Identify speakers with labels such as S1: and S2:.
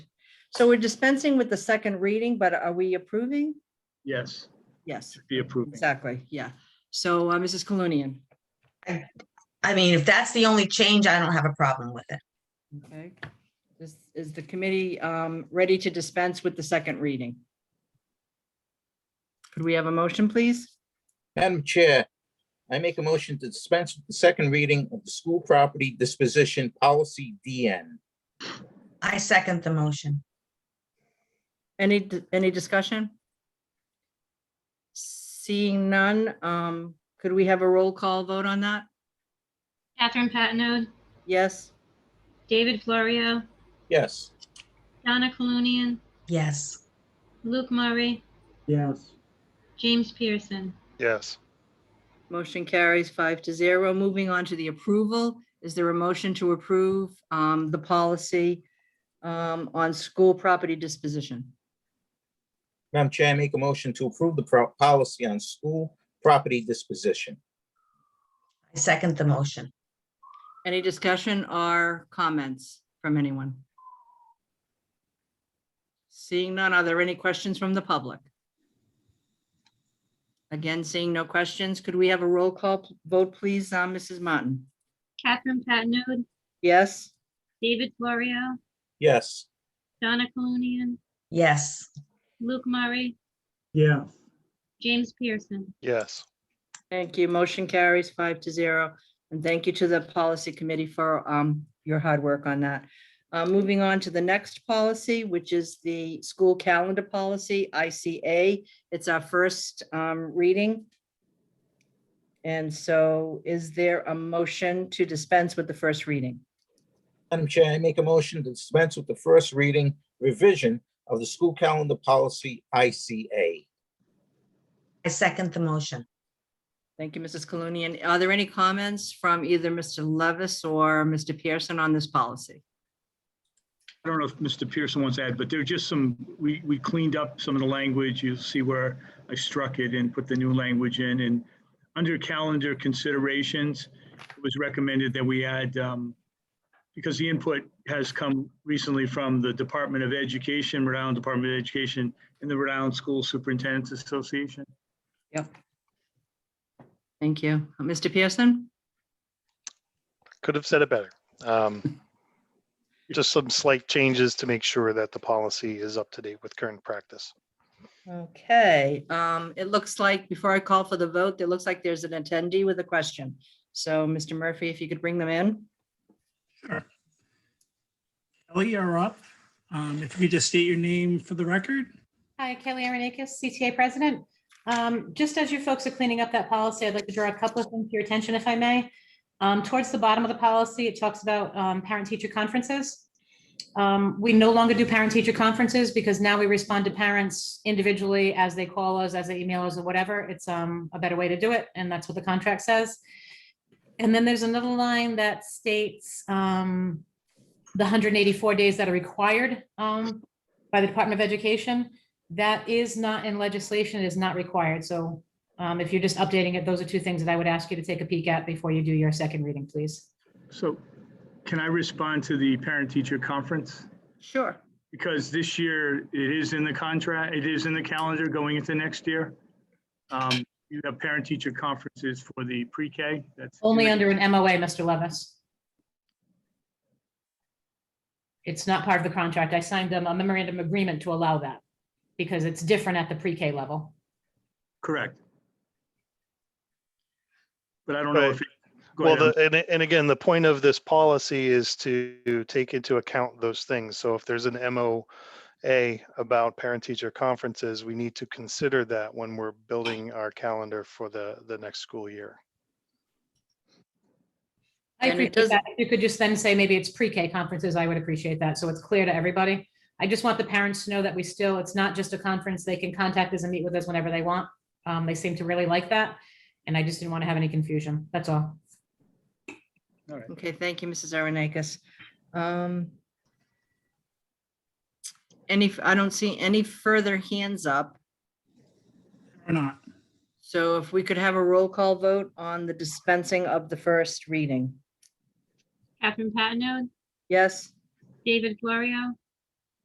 S1: So we're dispensing with the second reading, but are we approving?
S2: Yes,
S1: Yes,
S2: be approving.
S1: exactly, yeah. So uh, Mrs. Colonian,
S3: I mean, if that's the only change, I don't have a problem with it.
S1: okay? Is, is the committee um, ready to dispense with the second reading? Could we have a motion, please?
S4: Madam Chair, I make a motion to dispense with the second reading of the school property disposition policy DN.
S3: I second the motion.
S1: Any, d- any discussion? Seeing none, um, could we have a roll call vote on that?
S5: Catherine Patino,
S1: Yes,
S5: David Florio,
S4: Yes,
S5: Donna Colunian,
S3: Yes,
S5: Luke Murray,
S2: Yes.
S5: James Pearson.
S6: yes,
S1: motion carries five to zero. Moving on to the approval. Is there a motion to approve um, the policy um, on school property disposition?
S4: Madam Chair, I make a motion to approve the pro- policy on school property disposition.
S3: I second the motion.
S1: Any discussion or comments from anyone? Seeing none, are there any questions from the public? Again, seeing no questions, could we have a roll call p- vote, please, on Mrs. Martin?
S5: Catherine Patino,
S1: Yes,
S5: David Florio,
S4: Yes,
S5: Donna Colunian,
S3: Yes,
S5: Luke Murray,
S2: Yes.
S5: James Pearson.
S6: yes,
S1: thank you. Motion carries five to zero. And thank you to the policy committee for um, your hard work on that. Uh, Moving on to the next policy, which is the school calendar policy, ICA. It's our first um, reading. And so is there a motion to dispense with the first reading?
S4: Madam Chair, I make a motion to dispense with the first reading revision of the school calendar policy ICA.
S3: I second the motion.
S1: Thank you, Mrs. Colonian. Are there any comments from either Mr. Levis or Mr. Pearson on this policy?
S2: I don't know if Mr. Pearson wants to add, but there are just some, we, we cleaned up some of the language. You'll see where I struck it and put the new language in. And under calendar considerations, it was recommended that we add, um, because the input has come recently from the Department of Education, Rhode Island Department of Education, and the Rhode Island School Superintendent's Association.
S1: Thank you. Mr. Pearson?
S6: could have said it better. Um, Just some slight changes to make sure that the policy is up to date with current practice.
S1: Okay, um, it looks like, before I call for the vote, it looks like there's an attendee with a question. So, Mr. Murphy, if you could bring them in.
S7: Kelly, you're up. Um, If you could just state your name for the record.
S8: Hi, Kelly Aronakis, CTA President. Um, Just as you folks are cleaning up that policy, I'd like to draw a couple of things to your attention, if I may. Um, Towards the bottom of the policy, it talks about um, parent-teacher conferences. Um, We no longer do parent-teacher conferences because now we respond to parents individually as they call us, as they email us, or whatever. It's um, a better way to do it, and that's what the contract says. And then there's another line that states um, the 184 days that are required um, by the Department of Education. That is not in legislation, it is not required. So um, if you're just updating it, those are two things that I would ask you to take a peek at before you do your second reading, please.
S2: So can I respond to the parent-teacher conference?
S1: Sure.
S2: because this year it is in the contract, it is in the calendar going into next year. Um, You have parent-teacher conferences for the pre-K, that's.
S8: Only under an MOA, Mr. Levis. It's not part of the contract. I signed them a memorandum agreement to allow that because it's different at the pre-K level.
S2: Correct. But I don't know if. it- go
S6: Well,
S2: ahead.
S6: the, and, and again, the point of this policy is to take into account those things. So if there's an MOA about parent-teacher conferences, we need to consider that when we're building our calendar for the, the next school year.
S1: And
S8: I
S1: it
S8: appreciate
S1: doesn't-
S8: that. If you could just then say maybe it's pre-K conferences, I would appreciate that. So it's clear to everybody. I just want the parents to know that we still, it's not just a conference. They can contact us and meet with us whenever they want. Um, they seem to really like that. And I just didn't want to have any confusion. That's all.
S2: All right.
S1: Okay, thank you, Mrs. Aronakis. Um, Any, I don't see any further hands up.
S7: Or not?
S1: So if we could have a roll call vote on the dispensing of the first reading.
S5: Catherine Patino,
S1: Yes,
S5: David Florio,